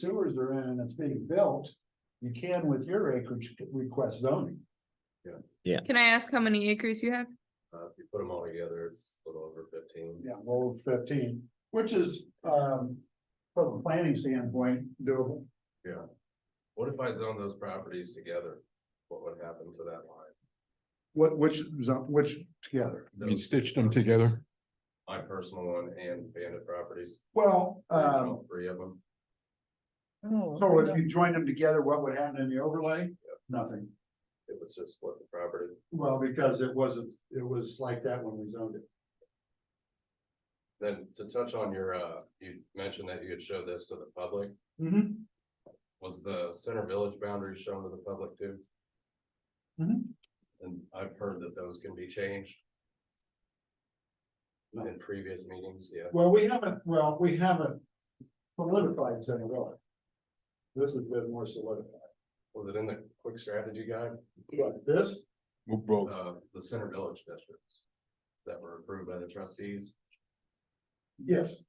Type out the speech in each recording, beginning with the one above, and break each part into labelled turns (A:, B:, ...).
A: sewers are in and it's being built, you can with your acreage request zoning.
B: Can I ask how many acres you have?
C: Uh, if you put them all together, it's a little over fifteen.
A: Yeah, well, fifteen, which is, um, from a planning standpoint, doable.
C: What if I zone those properties together? What would happen to that line?
A: What, which, zo- which together?
D: I mean,
C: Those-
D: stitched them together.
C: My personal one and bandit properties,
A: Well, um,
C: all three of them.
A: so if you join them together, what would happen in the overlay? Nothing.
C: It would just split the property.
A: Well, because it wasn't, it was like that when we zoned it.
C: Then to touch on your, uh, you mentioned that you had showed this to the public.
A: Mm-hmm.
C: Was the center village boundary shown to the public too?
A: Mhm.
C: And I've heard that those can be changed. In previous meetings, yeah.
A: Well, we haven't, well, we haven't solidified Center Village. This has been more solidified.
C: Was it in the quick strategy guide?
A: But this,
D: Well, Both.
C: uh, the center village districts that were approved by the trustees.
A: yes,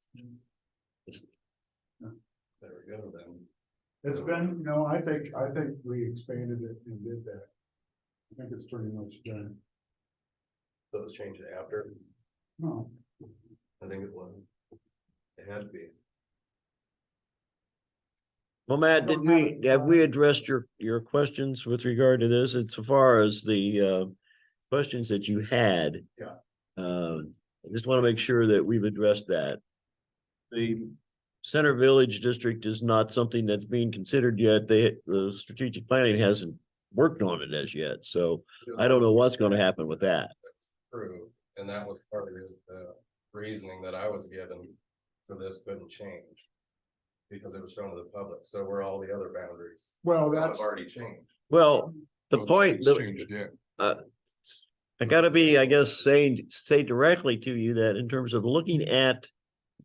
C: There we go then.
A: It's been, no, I think, I think we expanded it and did that. I think it's pretty much done.
C: Those changed after,
A: No,
C: I think it was. It had to be.
E: Well, Matt,
A: don't
E: did
A: have
E: we,
A: it.
E: have we addressed your, your questions with regard to this insofar as the, uh, questions that you had?
A: Yeah.
E: Um, I just want to make sure that we've addressed that. The Center Village District is not something that's being considered yet. They, the strategic planning hasn't worked on it as yet, so I don't know what's going to happen with that.
C: Approved, and that was part of the reasoning that I was given, so this couldn't change. Because it was shown to the public, so were all the other boundaries.
A: well,
C: So I've
A: that's,
C: Already changed.
E: Well, the
D: Both
E: point,
D: things
E: the-
D: Changed, yeah.
E: I gotta be, I guess, saying, say directly to you that in terms of looking at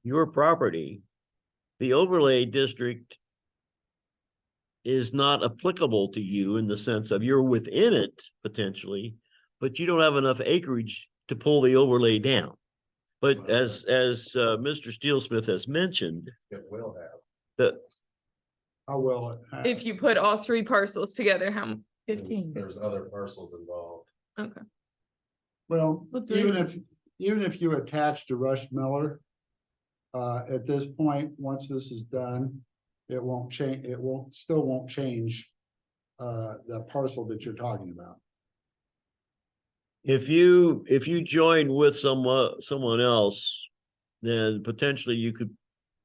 E: your property, the overlay district is not applicable to you in the sense of you're within it potentially, but you don't have enough acreage to pull the overlay down. But as, as, uh, Mr. Steel Smith has mentioned,
C: It will have.
E: that
A: how well it. has.
B: If you put all three parcels together, how, m-
C: There's other parcels involved.
A: Well,
B: Let's leave
A: even
B: it.
A: if, even if you attach to Rush Miller. Uh, at this point, once this is done, it won't change, it won't, still won't change. Uh, the parcel that you're talking about.
E: If you, if you join with someone, someone else, then potentially you could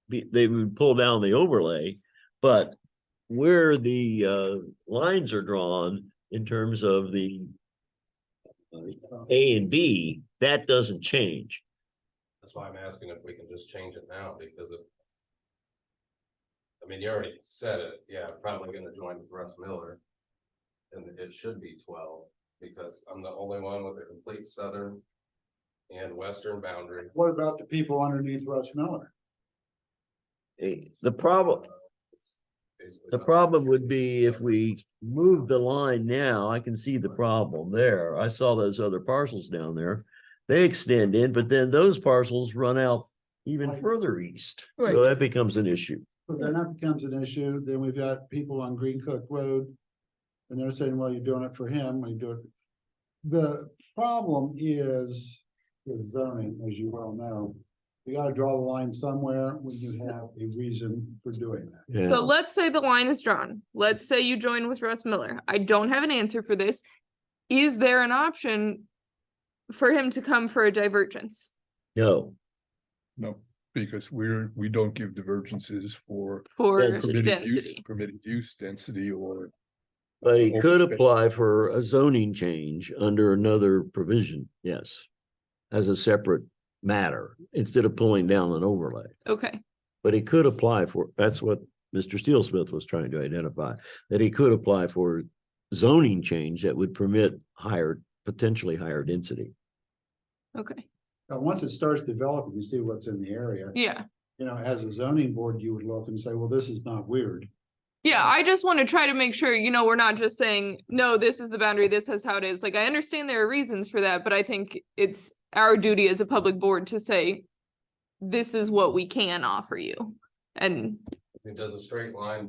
E: be, they would pull down the overlay. But where the uh lines are drawn in terms of the uh, A and B, that doesn't change.
C: That's why I'm asking if we can just change it now, because it. I mean, you already said it, yeah, probably gonna join with Russ Miller. And it should be twelve, because I'm the only one with a complete southern and western boundary.
A: What about the people underneath Rush Miller?
E: Eh, The problem,
C: Basically
E: the
C: not-
E: problem would be if we move the line now, I can see the problem there. I saw those other parcels down there. They extend in, but then those parcels run out even
A: Right.
E: further east.
B: Right.
E: So that becomes an issue.
A: So then that becomes an issue, then we've got people on Green Cook Road. And they're saying, well, you're doing it for him, we do it. The problem is with zoning, as you well know. You gotta draw the line somewhere when you have a reason for doing that.
E: Yeah.
B: so let's say the line is drawn. Let's say you join with Russ Miller. I don't have an answer for this. Is there an option for him to come for a divergence?
E: No,
D: No, because we're, we don't give divergences for
B: For
D: permitted use,
B: density,
D: permitted use, density, or.
E: but he
D: open
E: could
D: space.
E: apply for a zoning change under another provision, yes. As a separate matter, instead of pulling down an overlay.
B: okay,
E: But he could apply for, that's what Mr. Steel Smith was trying to identify, that he could apply for zoning change that would permit higher, potentially higher density.
B: okay,
A: Now, once it starts developing, you see what's in the area.
B: yeah.
A: You know, as a zoning board, you would look and say, well, this is not weird.
B: Yeah, I just want to try to make sure, you know, we're not just saying, no, this is the boundary, this is how it is. Like, I understand there are reasons for that, but I think it's our duty as a public board to say, this is what we can offer you. And
C: It does a straight line